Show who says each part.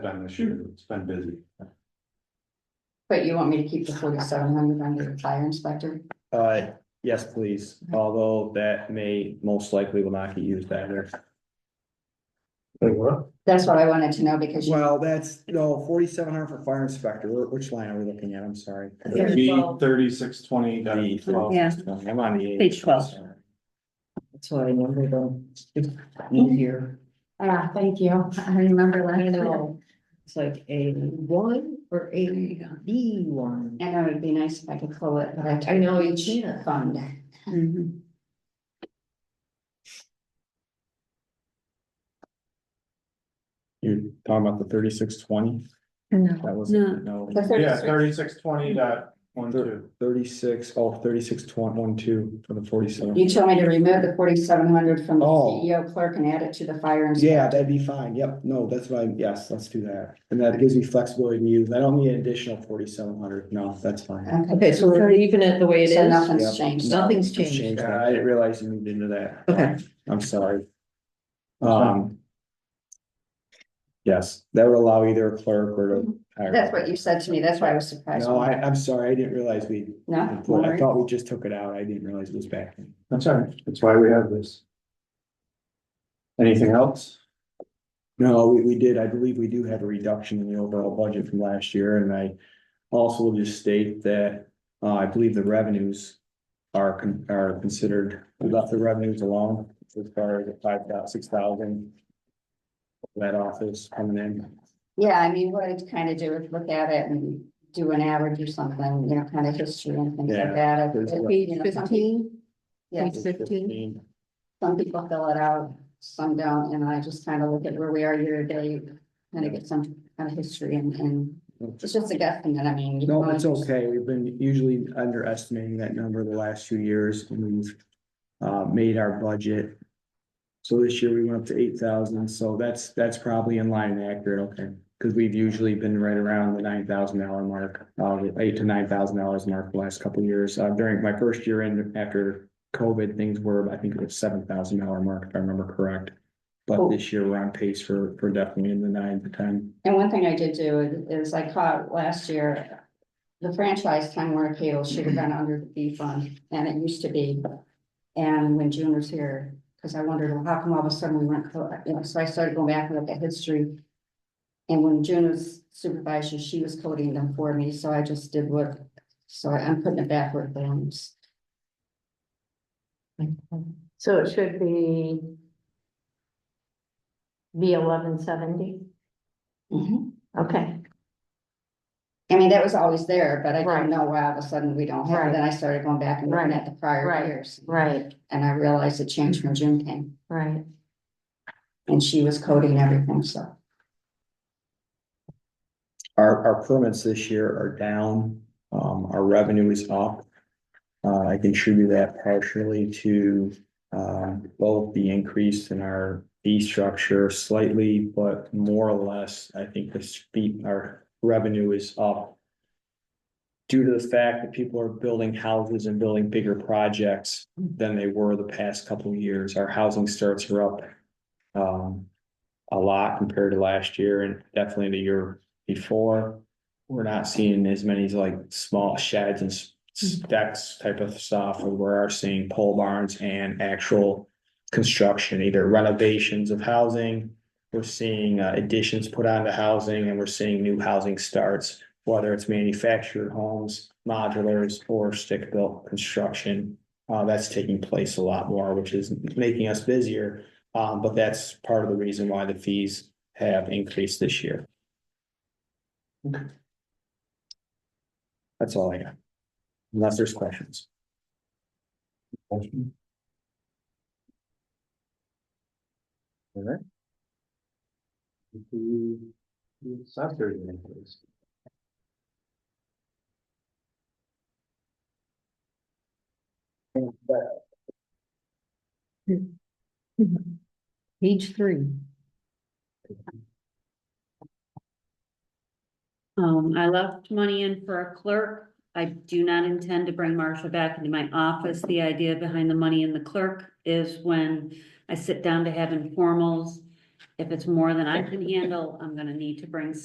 Speaker 1: done this year, it's been busy.
Speaker 2: But you want me to keep the forty-seven hundred under the fire inspector?
Speaker 3: Uh, yes, please, although that may most likely will not get used either.
Speaker 2: That's what I wanted to know because you,
Speaker 3: Well, that's, no, forty-seven hundred for fire inspector, Wh- which line are we looking at, I'm sorry.
Speaker 1: B thirty-six twenty,
Speaker 4: Yeah.
Speaker 3: I'm on the.
Speaker 4: Page 12.
Speaker 5: That's why I remember them. It's Easier.
Speaker 2: ah, thank you. I remember
Speaker 5: I
Speaker 2: last year.
Speaker 5: know. It's like a one or a B one.
Speaker 2: And it would be nice if I could pull it, but I.
Speaker 5: I know you can't.
Speaker 2: Fund.
Speaker 5: Mm-hmm.
Speaker 4: Mhm.
Speaker 3: You're talking about the thirty-six twenty, that was,
Speaker 4: No.
Speaker 3: no,
Speaker 2: The 36
Speaker 1: Yeah, thirty-six twenty dot one, two.
Speaker 3: thirty-six, oh, thirty-six twenty, one, two, for the forty-seven.
Speaker 2: You told me to remove the forty-seven hundred from the
Speaker 3: Oh.
Speaker 2: CEO clerk and add it to the fire inspector.
Speaker 3: Yeah, that'd be fine, yep, no, that's fine, yes, let's do that, and that gives me flexibility to use, I don't need an additional forty-seven hundred, no, that's fine.
Speaker 2: Okay,
Speaker 5: Okay, so we're leaving it the way it
Speaker 2: so
Speaker 5: is.
Speaker 2: nothing's
Speaker 3: Yep.
Speaker 2: changed.
Speaker 5: Nothing's changed.
Speaker 3: Change that. I didn't realize you moved into that.
Speaker 5: Okay.
Speaker 3: I'm sorry.
Speaker 1: fine.
Speaker 3: Um. Yes, that would allow either a clerk or to.
Speaker 2: That's what you said to me. That's why I was surprised.
Speaker 3: No, I, I'm sorry, I didn't realize we,
Speaker 2: No? All
Speaker 3: I
Speaker 2: right.
Speaker 3: thought we just took it out, I didn't realize it was back. in.
Speaker 1: That's all right, that's why we have this. Anything else?
Speaker 3: No, we, we did, I believe we do have a reduction in the overall budget from last year, and I also will just state that, uh, I believe the revenues are, con- are considered, we left the revenues alone as far as the five thou- six thousand that office coming in.
Speaker 2: Yeah, I mean, what I'd kind of do is look at it and do an average or something, you know, kind of history and things
Speaker 3: Yeah.
Speaker 2: like that. If- if,
Speaker 5: Page
Speaker 2: you know, some people-
Speaker 5: fifteen,
Speaker 2: Yeah,
Speaker 5: It's 15.
Speaker 2: some people fill it out, some don't, and I just kind of look at where we are year to date. Kind of get some kind of history and, and it's just a guesstimate, I mean. you
Speaker 3: No,
Speaker 2: can
Speaker 3: it's
Speaker 2: only-
Speaker 3: okay. We've been usually underestimating that number the last few years. and We've uh, made our budget. So this year we went up to eight thousand, so that's, that's probably in line and accurate, okay? Because we've usually been right around the nine thousand dollar mark, uh, the eight to nine thousand dollars mark the last couple of years. Uh, during my first year in after COVID, things were, I think it was seven thousand dollar mark, if I remember correct. But
Speaker 2: Cool.
Speaker 3: this year we're on pace for, for definitely in the nine to ten.
Speaker 2: And one thing I did do is- is I caught last year, the franchise time Warner Cable should have been under the B fund, and it used to be. And when June was here, because I wondered, well, how come all of a sudden we weren't, co- you know, so I started going back and look at history. And when June was supervisor, she was coding them for me, so I just did what, so I- I'm putting it back where it belongs.
Speaker 6: So it should be. B eleven seventy, Mm-hmm.
Speaker 2: I
Speaker 6: okay,
Speaker 2: mean, that was always there, but I
Speaker 6: Right.
Speaker 2: didn't know why all of a sudden we don't have, it.
Speaker 6: Right.
Speaker 2: then I started going back and looking
Speaker 6: Right.
Speaker 2: at the prior
Speaker 6: Right.
Speaker 2: years.
Speaker 6: right,
Speaker 2: And I realized it changed when June came
Speaker 6: right,
Speaker 2: and she was coding everything, so.
Speaker 3: Our, our permits this year are down, um, our revenue is up. Uh, I contribute that partially to, um, both the increase in our fee structure slightly, but more or less, I think the speed, our revenue is up. Due to the fact that people are building houses and building bigger projects than they were the past couple of years, our housing starts are up. Um, a lot compared to last year and definitely the year before. We're not seeing as many like small sheds and s- stacks type of stuff, and we are seeing pole barns and actual. Construction, either renovations of housing, we're seeing uh, additions put onto housing, and we're seeing new housing starts. Whether it's manufactured homes, modulars, or stick built construction, uh, that's taking place a lot more, which is making us busier. Um, but that's part of the reason why the fees have increased this year. That's all I got. Unless there's questions.
Speaker 1: All right. The secretary, please.
Speaker 5: page three.
Speaker 4: Um, I left money in for a clerk. I do not intend to bring Marcia back into my office. The idea behind the money in the clerk is when I sit down to have informals. If it's more than I can handle, I'm gonna need to bring